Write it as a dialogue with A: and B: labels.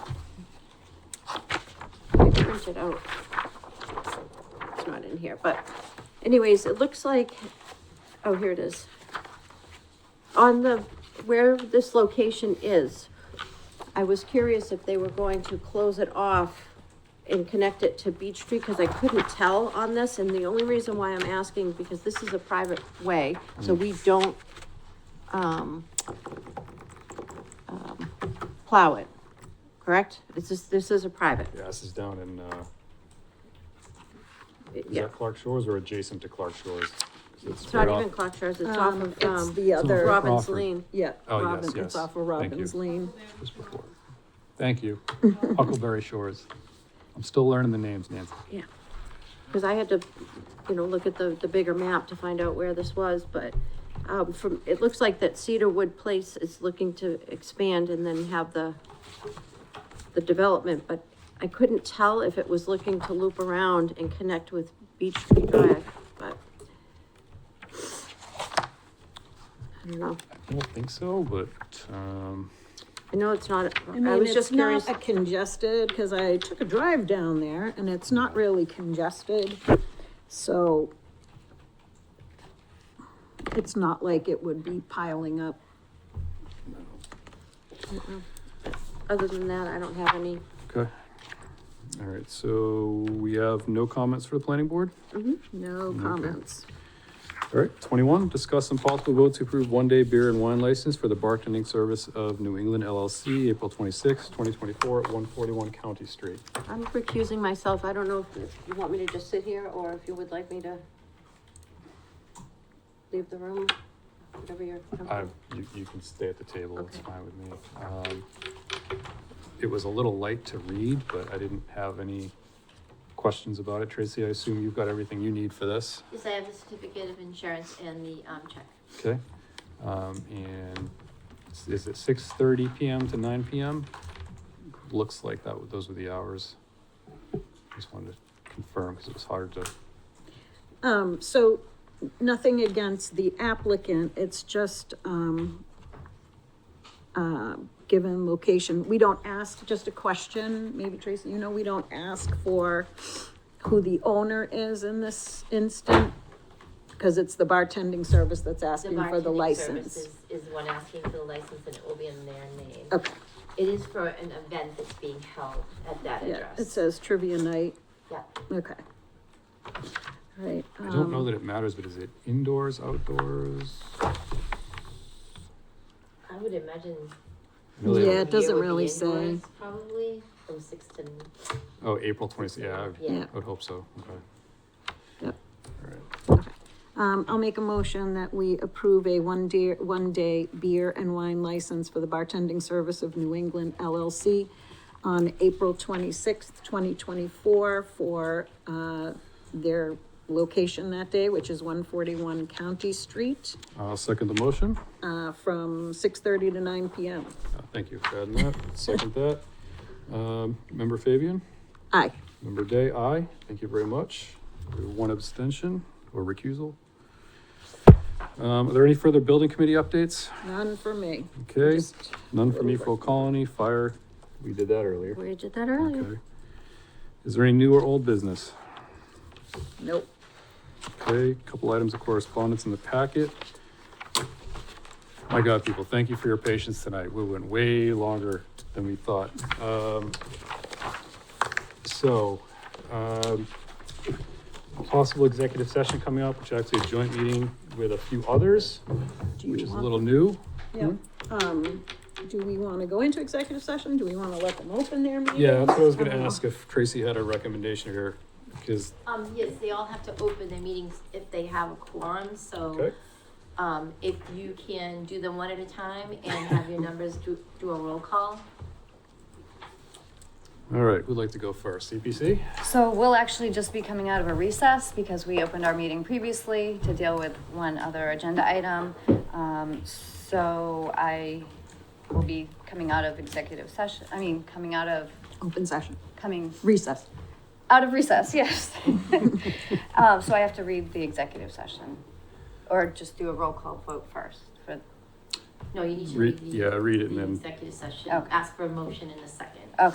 A: print it out. It's not in here, but anyways, it looks like, oh, here it is. On the, where this location is, I was curious if they were going to close it off and connect it to Beach Street, because I couldn't tell on this, and the only reason why I'm asking, because this is a private way, so we don't, um, um, plow it, correct? This is, this is a private,
B: Yeah, this is down in, uh, is
A: yeah.
B: that Clark Shores or adjacent to Clark Shores? 'Cause
A: It's not
B: right
A: even
B: off-
A: Clark Shores, it's off
C: Um,
A: of,
C: it's
A: um,
C: the other,
A: Robbins
B: Crawford.
A: Lane.
C: yeah.
B: Oh,
C: Robin-
B: yes, yes.
C: It's
B: Thank
C: off of
B: you.
C: Robbins Lane.
B: Just before. Thank you. Huckleberry Shores. I'm still learning the names, Nancy.
A: Yeah, because I had to, you know, look at the, the bigger map to find out where this was, but, um, from, it looks like that Cedarwood Place is looking to expand and then have the, the development, but I couldn't tell if it was looking to loop around and connect with Beach Street Drive, but. I don't know,
B: I don't think so, but, um,
A: I know it's not,
C: I
A: I
C: mean,
A: was just
C: it's
A: curious,
C: not a congested, because I took a drive down there and it's not really congested, so it's not like it would be piling up.
A: other than that, I don't have any.
B: okay. All right, so we have no comments for the planning board?
C: No comments.
B: All right, twenty-one, discuss some possible votes to approve one-day beer and wine license for the bartending service of New England LLC, April twenty-sixth, twenty twenty-four, at one forty-one County Street.
A: I'm recusing myself. I don't know if you want me to just sit here or if you would like me to leave the room, whatever you're.
B: I, you, you can stay at the table, it's
A: Okay.
B: fine with me. Um, It was a little light to read, but I didn't have any questions about it. Tracy, I assume you've got everything you need for this,
D: Yes, I have the certificate of insurance and the, um, check.
B: okay? Um, and s- is it six thirty PM to nine PM? Looks like that, w- those were the hours. Just wanted to confirm, because it was hard to,
C: Um, so, nothing against the applicant, it's just, um, uh, given location, we don't ask, just a question, maybe Tracy, you know, we don't ask for who the owner is in this instant, because it's the bartending service that's asking for the
D: bartending service
C: license.
D: is- Is the one asking for the license and it will be in their name.
C: Okay,
D: It is for an event that's being held at that
C: yeah,
D: address.
C: it says trivia night,
D: Yeah,
C: okay. Right,
B: I don't know
C: um,
B: that it matters, but is it indoors, outdoors?
D: I would imagine.
B: Really?
C: Yeah, it doesn't
D: beer would be
C: really say.
D: indoors, Probably from six to. n-
B: Oh, April twenty, yeah, I-
D: Yeah,
C: Yeah.
B: I would hope so, okay.
C: Yep.
B: All right.
C: Um, I'll make a motion that we approve a one day, one day beer and wine license for the bartending service of New England LLC on April twenty-sixth, twenty twenty-four for, uh, their location that day, which is one forty-one County Street,
B: I'll second the motion.
C: uh, from six-thirty to nine PM.
B: Uh, Thank you for adding that. Second that. Um, Member Fabian,
C: Aye.
B: member Day, aye. Thank you very much. One abstention or recusal. Um, Are there any further building committee updates?
C: None for me.
B: Okay,
C: Just-
B: none from Eco Colony, fire. We did that earlier.
A: We did that earlier.
B: Okay. Is there any new or old business?
C: Nope.
B: Okay, a couple items of correspondence in the packet. My God, people, thank you for your patience tonight. We went way longer than we thought. Um, so, um, a possible executive session coming up, which is actually a joint meeting with a few others,
C: Do you
B: which is a
C: want-
B: little new.
C: Yeah, um, do we wanna go into executive session? Do we wanna let them open their meeting?
B: Yeah, that's what I was gonna ask if Tracy had a recommendation here, because,
D: um, yes, they all have to open their meetings if they have a quorum,
C: Oh.
D: so.
B: okay,
D: Um, if you can do them one at a time and have your numbers do, do a roll call.
B: all right, who'd like to go first? CPC?
E: So we'll actually just be coming out of a recess because we opened our meeting previously to deal with one other agenda item. Um, so I will be coming out of executive session, I mean, coming out of,
C: Open session,
E: coming
C: recess.
E: out of recess, yes. Um, so I have to read the executive session or just do a roll call vote first for
D: No, you need to
B: Read-
D: read.
B: yeah, read it and
D: the
B: then-
D: Executive session,
E: Okay.
D: ask for a motion in a second.